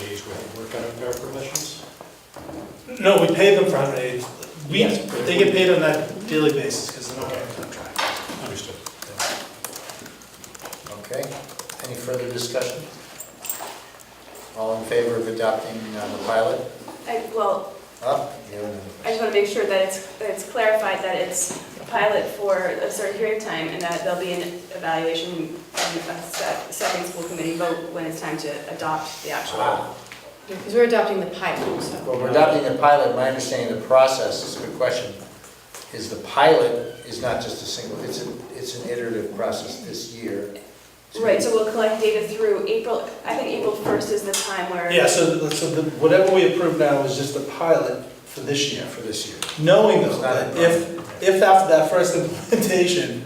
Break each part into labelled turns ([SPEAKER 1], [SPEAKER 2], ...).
[SPEAKER 1] days where they work out of their permissions?
[SPEAKER 2] No, we pay them for how many, we,
[SPEAKER 1] Yes.
[SPEAKER 2] they get paid on that daily basis because they're not on contract.
[SPEAKER 1] Understood. Okay, any further discussion? All in favor of adopting uh, the pilot?
[SPEAKER 3] I- Well,
[SPEAKER 1] Up, you and
[SPEAKER 3] I just want to make sure that it's, that it's clarified that it's a pilot for a certain period of time and that there'll be an evaluation and a se- second school committee vote when it's time to adopt the actual.
[SPEAKER 1] Wow.
[SPEAKER 4] Because we're adopting the pilot, so.
[SPEAKER 1] Well, we're adopting the pilot, my understanding of the process, is a good question, is the pilot is not just a single, it's, a it's an iterative process this year.
[SPEAKER 3] Right, so we'll collect data through April, I think April 1st is the time where.
[SPEAKER 2] Yeah, so, the- so the, whatever we approve now is just a pilot for this year.
[SPEAKER 1] For this year.
[SPEAKER 2] Knowing
[SPEAKER 1] It's
[SPEAKER 2] though,
[SPEAKER 1] not a
[SPEAKER 2] that if, if after that first implementation,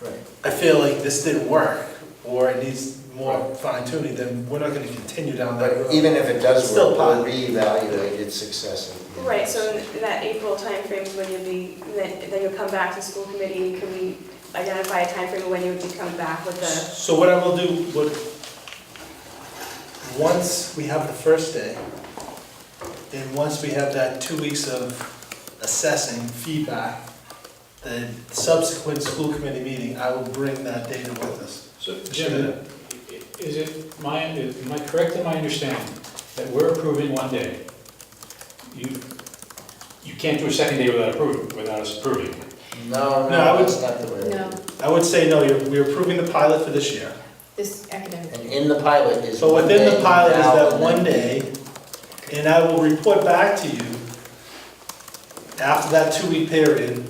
[SPEAKER 1] Right.
[SPEAKER 2] I feel like this didn't work, or it needs more fine tuning, then we're not gonna continue down that road.
[SPEAKER 1] But even if it does
[SPEAKER 2] Still
[SPEAKER 1] work, we'll
[SPEAKER 2] pilot.
[SPEAKER 1] reevaluate its success. at the end.
[SPEAKER 3] Right, so in that April timeframe is when you'll be, then then you'll come back to school committee, can we identify a timeframe of when you would be coming back with the,
[SPEAKER 2] So what I will do, what, once we have the first day, and once we have that two weeks of assessing feedback, the subsequent school committee meeting, I will bring that data with us.
[SPEAKER 5] So Jim, is it my, am I correct in my understanding that we're approving one day? You, you can't do a second day without approving, without us approving.
[SPEAKER 2] No,
[SPEAKER 1] No,
[SPEAKER 2] I
[SPEAKER 1] no,
[SPEAKER 2] would-
[SPEAKER 1] that's not the way.
[SPEAKER 4] No,
[SPEAKER 2] I would say, no, you're, we're approving the pilot for this year.
[SPEAKER 4] this academic.
[SPEAKER 1] And in the pilot is.
[SPEAKER 2] So
[SPEAKER 1] one
[SPEAKER 2] within the
[SPEAKER 1] day
[SPEAKER 2] pilot is
[SPEAKER 1] now
[SPEAKER 2] that
[SPEAKER 1] and
[SPEAKER 2] one
[SPEAKER 1] then-
[SPEAKER 2] day, and I will report back to you after that two-week period,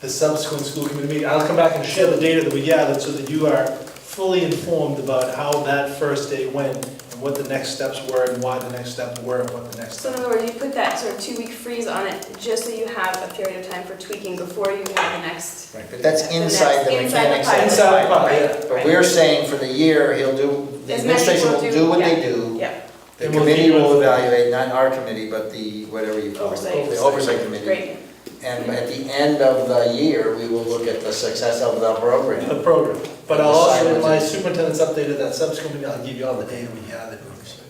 [SPEAKER 2] the subsequent school committee meeting. I'll come back and share the data that we gathered so that you are fully informed about how that first day went and what the next steps were and why the next steps were and what the next
[SPEAKER 3] so in
[SPEAKER 2] steps.
[SPEAKER 3] other words, you put that sort of two-week freeze on it, just so you have a period of time for tweaking before you have the next.
[SPEAKER 1] Right, but that's
[SPEAKER 3] the next-
[SPEAKER 1] inside the
[SPEAKER 3] inside
[SPEAKER 1] mechanics. of
[SPEAKER 3] pilot.
[SPEAKER 1] the
[SPEAKER 2] Inside the
[SPEAKER 1] pilot.
[SPEAKER 2] pilot,
[SPEAKER 3] Right,
[SPEAKER 2] yeah.
[SPEAKER 1] But
[SPEAKER 3] right.
[SPEAKER 1] we're saying for the year, he'll do, the
[SPEAKER 3] As many as
[SPEAKER 1] administration will
[SPEAKER 3] will
[SPEAKER 1] do
[SPEAKER 3] do,
[SPEAKER 1] what they
[SPEAKER 3] yeah.
[SPEAKER 1] do.
[SPEAKER 3] Yep,
[SPEAKER 1] The
[SPEAKER 2] And we'll
[SPEAKER 1] committee
[SPEAKER 2] keep
[SPEAKER 1] will
[SPEAKER 2] it-
[SPEAKER 1] evaluate, not our committee, but the, whatever you call it.
[SPEAKER 3] Oversight.
[SPEAKER 1] The oversight committee.
[SPEAKER 3] great.
[SPEAKER 1] And at the end of the year, we will look at the success of the program.
[SPEAKER 2] The program. But I'll
[SPEAKER 1] Decide
[SPEAKER 2] also, in
[SPEAKER 1] what
[SPEAKER 2] my
[SPEAKER 1] to-
[SPEAKER 2] superintendent's updated that subsequent meeting, I'll give you all the data we gathered.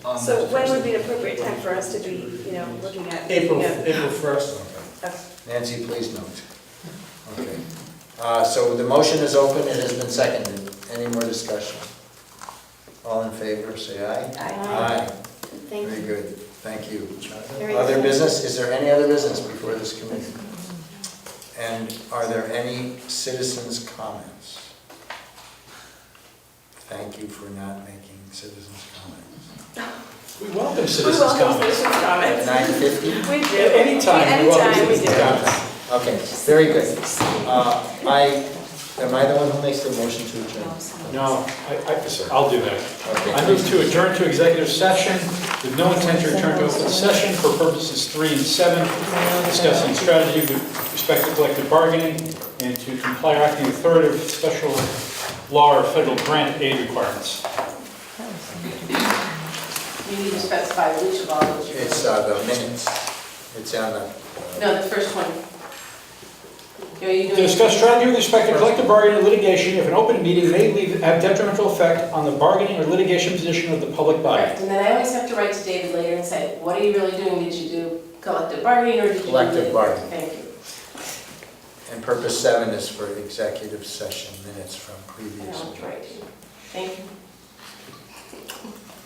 [SPEAKER 2] on
[SPEAKER 3] So
[SPEAKER 2] that
[SPEAKER 3] when
[SPEAKER 2] first
[SPEAKER 3] would be
[SPEAKER 2] day.
[SPEAKER 3] an appropriate time for us to be, you know, looking at?
[SPEAKER 2] April,
[SPEAKER 3] you know,
[SPEAKER 2] April first.
[SPEAKER 3] of-
[SPEAKER 1] Nancy, please note. Okay. Uh, So the motion is open, it has been seconded. Any more discussion? All in favor, say aye.
[SPEAKER 3] I-
[SPEAKER 4] Aye. Thank
[SPEAKER 1] Very
[SPEAKER 4] you.
[SPEAKER 1] good, thank you.
[SPEAKER 4] Very
[SPEAKER 1] Other
[SPEAKER 4] good.
[SPEAKER 1] business, is there any other business before this committee? And are there any citizens' comments? Thank you for not making citizens' comments.
[SPEAKER 5] We welcome
[SPEAKER 3] We
[SPEAKER 5] citizens'
[SPEAKER 3] welcome
[SPEAKER 5] comments.
[SPEAKER 3] citizens' comments.
[SPEAKER 1] Nine fifty?
[SPEAKER 3] We do.
[SPEAKER 5] At any time,
[SPEAKER 3] Any
[SPEAKER 5] we welcome
[SPEAKER 3] time, we
[SPEAKER 5] citizens'
[SPEAKER 3] do.
[SPEAKER 5] comments.
[SPEAKER 1] Okay, very good. Uh, I, am I the one who makes the motion to adjourn?
[SPEAKER 5] No, I, I, I'll do that. I
[SPEAKER 1] Okay.
[SPEAKER 5] move to adjourn to executive session with no intent to return to open session for purposes three and seven, discussing strategy with respect to collective bargaining and to comply or acting authority with special law or federal grant aid requirements.
[SPEAKER 6] You need to specify which of all those you're.
[SPEAKER 1] It's uh, the minutes, it's on the. uh,
[SPEAKER 6] No, the first one. No, you
[SPEAKER 5] To
[SPEAKER 6] doing?
[SPEAKER 5] discuss strategy with respect to collective bargaining or litigation if an open meeting may leave, have detrimental effect on the bargaining or litigation position of the public body.
[SPEAKER 6] Correct, and then I always have to write to David later and say, what are you really doing? Did you do collective bargaining or did you? do
[SPEAKER 1] Collective
[SPEAKER 6] the-"
[SPEAKER 1] bargaining.
[SPEAKER 6] Thank you.
[SPEAKER 1] And purpose seven is for executive session minutes from
[SPEAKER 6] I
[SPEAKER 1] previous.
[SPEAKER 6] know what to write to you. Thank you.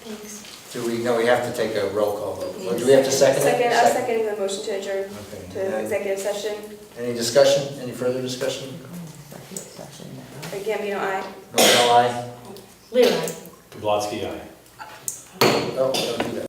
[SPEAKER 4] Thanks.
[SPEAKER 1] Do we, no, we have to take a roll call vote. Well, Do we have to second it?
[SPEAKER 3] Second, I'll second the motion to adjourn
[SPEAKER 1] Okay.
[SPEAKER 3] to executive session.
[SPEAKER 1] Any discussion, any further discussion?
[SPEAKER 3] Again, you know, I.
[SPEAKER 1] No, no, aye?
[SPEAKER 4] Leland.
[SPEAKER 5] Kablotsky, aye.
[SPEAKER 1] Oh, don't do that.